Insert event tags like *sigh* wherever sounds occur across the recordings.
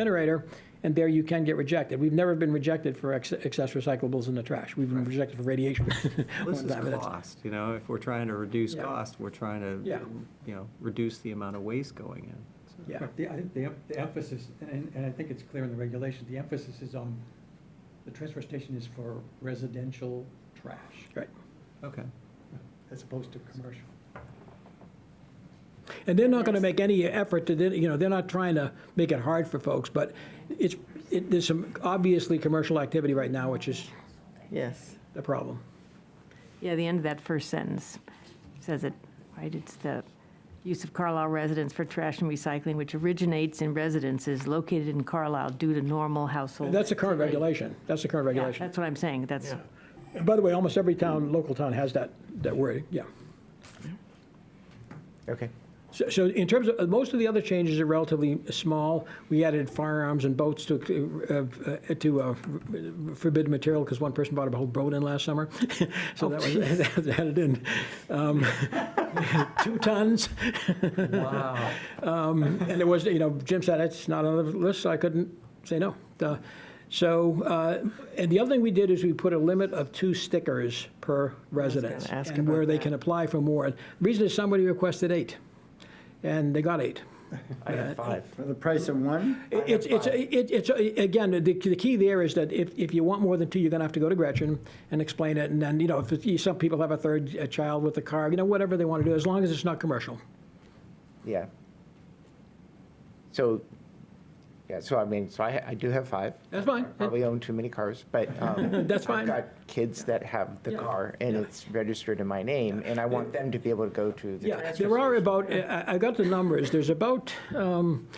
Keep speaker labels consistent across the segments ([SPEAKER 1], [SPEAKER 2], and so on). [SPEAKER 1] incinerator, and there you can get rejected. We've never been rejected for ex- excess recyclables in the trash. We've been rejected for radiation.
[SPEAKER 2] *laughs* This
[SPEAKER 1] *laughs* one
[SPEAKER 2] is
[SPEAKER 1] time, but that's-
[SPEAKER 2] cost, you know, if we're trying to reduce
[SPEAKER 1] Yeah.
[SPEAKER 2] cost, we're trying
[SPEAKER 1] Yeah.
[SPEAKER 2] to, you know, reduce the amount of waste going in. So-
[SPEAKER 1] Yeah,
[SPEAKER 3] But the, I think the em- the emphasis, and, and I think it's clear in the regulations, the emphasis is on, the transfer station is for residential trash,
[SPEAKER 1] right.
[SPEAKER 2] Okay.
[SPEAKER 3] as opposed to commercial.
[SPEAKER 1] And they're not going to
[SPEAKER 4] Yes.
[SPEAKER 1] make any effort to, you know, they're not trying to make it hard for folks, but it's, it- there's some obviously commercial activity right now, which is
[SPEAKER 4] Yes.
[SPEAKER 1] a problem.
[SPEAKER 4] Yeah, the end of that first sentence says it, right? It's the use of Carlisle residents for trash and recycling, which originates in residences located in Carlisle due to normal household.
[SPEAKER 1] That's the current regulation. That's the current
[SPEAKER 4] Yeah,
[SPEAKER 1] regulation.
[SPEAKER 4] That's what I'm saying. That's,
[SPEAKER 1] And by the way, almost every town, local town has that, that word, yeah.
[SPEAKER 5] Okay.
[SPEAKER 1] So, so in terms of, most of the other changes are relatively small. We added firearms and boats to, uh, uh, to uh, forbidden material because one person bought a whole boat in last summer. *laughs* So that was, that *laughs* added in. Um, *laughs* Two tons.
[SPEAKER 2] Wow.
[SPEAKER 1] Um,
[SPEAKER 4] *laughs*
[SPEAKER 1] And it was, you know, Jim said, it's not on the list, so I couldn't say no. Uh, So, uh, and the other thing we did is we put a limit of two stickers per residence.
[SPEAKER 4] ask
[SPEAKER 1] And where
[SPEAKER 4] about
[SPEAKER 1] they
[SPEAKER 4] that.
[SPEAKER 1] can apply for more. The Reason is somebody requested eight, and they got eight.
[SPEAKER 5] I have five. For the price of one?
[SPEAKER 1] It's, it's, it- it's, again, the, the key there is that if, if you want more than two, you're gonna have to go to Gretchen and explain it, and then, you know, if, it's- some people have a third uh, child with a car, you know, whatever they wanna do, as long as it's not commercial.
[SPEAKER 5] Yeah. So, yeah, so I mean, so I, I do have five.
[SPEAKER 1] That's fine.
[SPEAKER 5] I Probably own too many cars, but.
[SPEAKER 1] *laughs*
[SPEAKER 5] um,
[SPEAKER 1] That's fine.
[SPEAKER 5] I've got kids that have the
[SPEAKER 1] Yeah.
[SPEAKER 5] car and it's registered in my name and I want them to be able to go to the
[SPEAKER 1] Yeah,
[SPEAKER 5] transfer
[SPEAKER 1] there are
[SPEAKER 5] station.
[SPEAKER 1] about, I I got the numbers, there's about, um,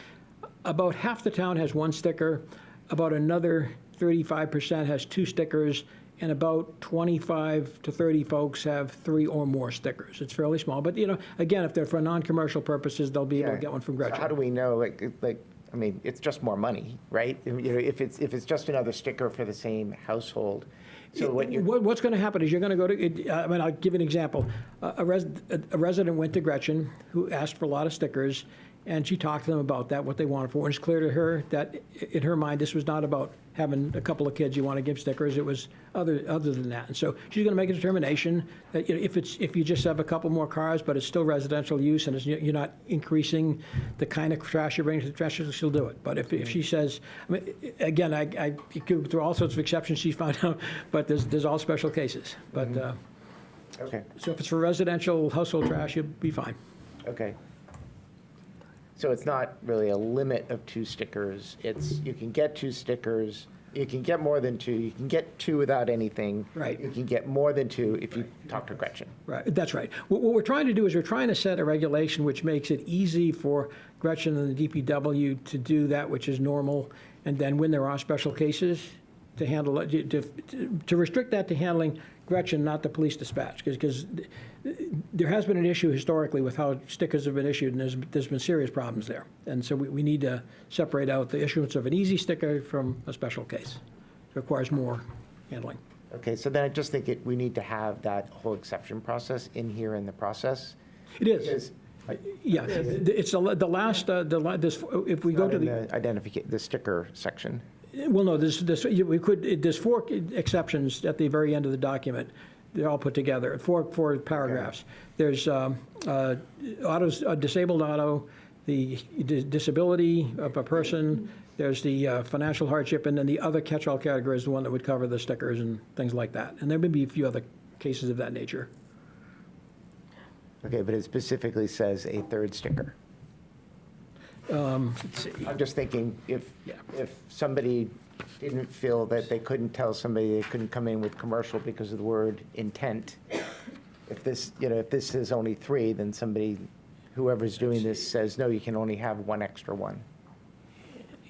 [SPEAKER 1] about half the town has one sticker, about another 35% has two stickers, and about 25 to 30 folks have three or more stickers. It's fairly small, but, you know, again, if they're for non-commercial purposes, they'll be able to
[SPEAKER 5] Yeah.
[SPEAKER 1] get one from
[SPEAKER 5] So How do
[SPEAKER 1] Gretchen.
[SPEAKER 5] we know, like, it- like, I mean, it's just more money, right? You know, if it's, if it's just another sticker for the same household, so what you're.
[SPEAKER 1] What- What's going to happen is you're going to go to, it- I mean, I'll give you an example. A a res- a resident went to Gretchen, who asked for a lot of stickers, and she talked to them about that, what they wanted for, it. and it's clear to her that, i- in her mind, this was not about having a couple of kids you want to give stickers, it was other, other than that. And so she's going to make a determination that you know, if it's, if you just have a couple more cars, but it's still residential use, and it's, you're not increasing the kind of trash you're bringing to the trash, she'll do it. But if, if she says, I mean, i- again, I, I, you could- there are all sorts of exceptions she found *laughs* out, but there's, there's all special cases. But, uh,
[SPEAKER 5] Okay.
[SPEAKER 1] so if it's for residential household trash, you'll be fine.
[SPEAKER 5] Okay. So it's not really a limit of two stickers, it's, you can get two stickers, you can get more than two, you can get two without anything.
[SPEAKER 1] Right.
[SPEAKER 5] You can get more than two if you talk to Gretchen.
[SPEAKER 1] Right, that's right. What, what we're trying to do is we're trying to set a regulation which makes it easy for Gretchen and the DPW to do that which is normal, and then when there are special cases, to handle, it, to, to- to restrict that to handling Gretchen, not the police dispatch, because, there has been an issue historically with how stickers have been issued, and there's, there's been serious problems there. And so we, we need to separate out the issuance of an easy sticker from a special case. It Requires more handling.
[SPEAKER 5] Okay, so then I just think it, we need to have that whole exception process in here in the process.
[SPEAKER 1] It is.
[SPEAKER 5] Because
[SPEAKER 1] Yeah, th- th- it's the la- the last, uh, the, la- this, if we go
[SPEAKER 5] not
[SPEAKER 1] to
[SPEAKER 5] in
[SPEAKER 1] the,
[SPEAKER 5] the identification, the sticker section.
[SPEAKER 1] well, no, there's, there's, you- we could, it- there's four e, exceptions at the very end of the document. They're all put together, four, four paragraphs. There's um, uh, autos, uh, disabled auto, the di- disability of a person, there's the uh, financial hardship, and then the other catch-all category is the one that would cover the stickers and things like that. And there may be a few other cases of that nature.
[SPEAKER 5] Okay, but it specifically says a third sticker. I'm just thinking, if,
[SPEAKER 1] Yeah.
[SPEAKER 5] if somebody didn't feel that they couldn't tell somebody they couldn't come in with commercial because of the word intent, if this, you know, if this is only three, then somebody, whoever's doing this says, no, you can only have one extra one.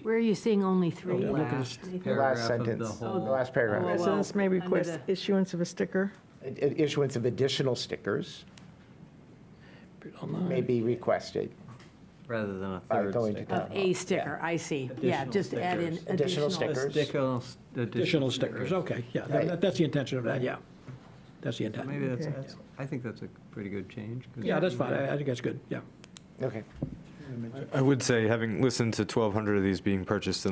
[SPEAKER 4] where are you seeing only
[SPEAKER 2] Oh,
[SPEAKER 4] three?
[SPEAKER 1] I'm looking at
[SPEAKER 2] Last paragraph of
[SPEAKER 4] Anything?
[SPEAKER 5] The last
[SPEAKER 2] the
[SPEAKER 5] sentence, the
[SPEAKER 2] whole-
[SPEAKER 5] last
[SPEAKER 4] Oh,
[SPEAKER 5] paragraph.
[SPEAKER 4] wow.
[SPEAKER 6] Residents may
[SPEAKER 4] Under
[SPEAKER 6] request
[SPEAKER 4] the-
[SPEAKER 6] issuance of a sticker.
[SPEAKER 5] I- I- Issuance of additional stickers may be requested.
[SPEAKER 2] Rather than a
[SPEAKER 5] All
[SPEAKER 2] third
[SPEAKER 5] right, going to
[SPEAKER 2] sticker.
[SPEAKER 4] Of a sticker, I see. Yeah,
[SPEAKER 2] Additional
[SPEAKER 4] just add in
[SPEAKER 2] stickers.
[SPEAKER 4] additional.
[SPEAKER 5] Additional stickers.
[SPEAKER 2] Additional s-
[SPEAKER 1] Additional stickers, okay, yeah, that-
[SPEAKER 5] Right.
[SPEAKER 1] that's the intention of that, yeah. That's the intent.
[SPEAKER 2] Maybe that's,
[SPEAKER 6] Okay.
[SPEAKER 2] that's- I think that's a pretty good change. 'cause-
[SPEAKER 1] Yeah, that's fine, I I think that's good, yeah.
[SPEAKER 5] Okay.
[SPEAKER 3] we mentioned.
[SPEAKER 6] I would say, having listened to 1,200 of these being purchased in